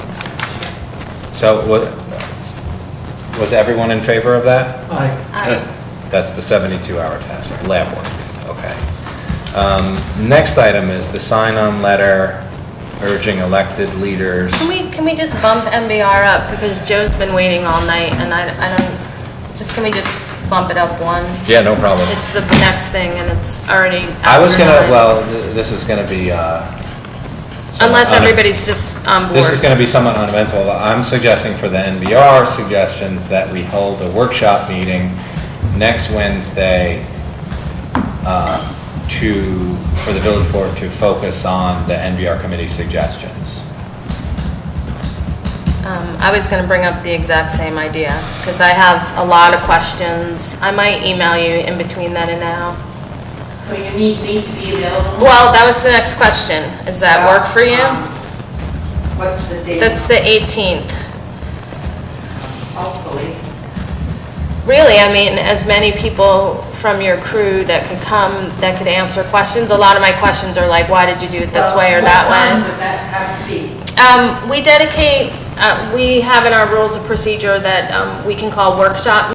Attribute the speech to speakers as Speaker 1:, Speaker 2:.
Speaker 1: So was, was everyone in favor of that?
Speaker 2: Aye.
Speaker 3: Aye.
Speaker 1: That's the 72-hour test, lab work, okay. Um, Next item is the sign-on letter urging elected leaders.
Speaker 3: Can we, can we just bump MBR up, because Joe's been waiting all night, and I, I don't, just, can we just bump it up one?
Speaker 1: Yeah, no problem.
Speaker 3: It's the next thing, and it's already
Speaker 1: I was
Speaker 3: after
Speaker 1: gonna,
Speaker 3: nine.
Speaker 1: well, th- this is gonna be, uh... somewhat
Speaker 3: Unless
Speaker 1: une-
Speaker 3: everybody's just on board.
Speaker 1: This is gonna be somewhat uneventful. I'm suggesting for the NBR suggestions that we hold a workshop meeting next Wednesday uh, to, for the village board to focus on the NBR committee suggestions.
Speaker 3: Um, I was gonna bring up the exact same idea, because I have a lot of questions. I might email you in between then and now.
Speaker 4: So you need me to be available?
Speaker 3: Well, that was the next question. Does that work for you?
Speaker 4: Um, What's the date?
Speaker 3: That's the 18th.
Speaker 4: Hopefully.
Speaker 3: Really, I mean, as many people from your crew that could come, that could answer questions. A lot of my questions are like, why did you do it this
Speaker 4: Well,
Speaker 3: way or that
Speaker 4: What time
Speaker 3: way?
Speaker 4: would that have to be?
Speaker 3: Um, We dedicate, uh, we have in our rules of procedure that um, we can call workshop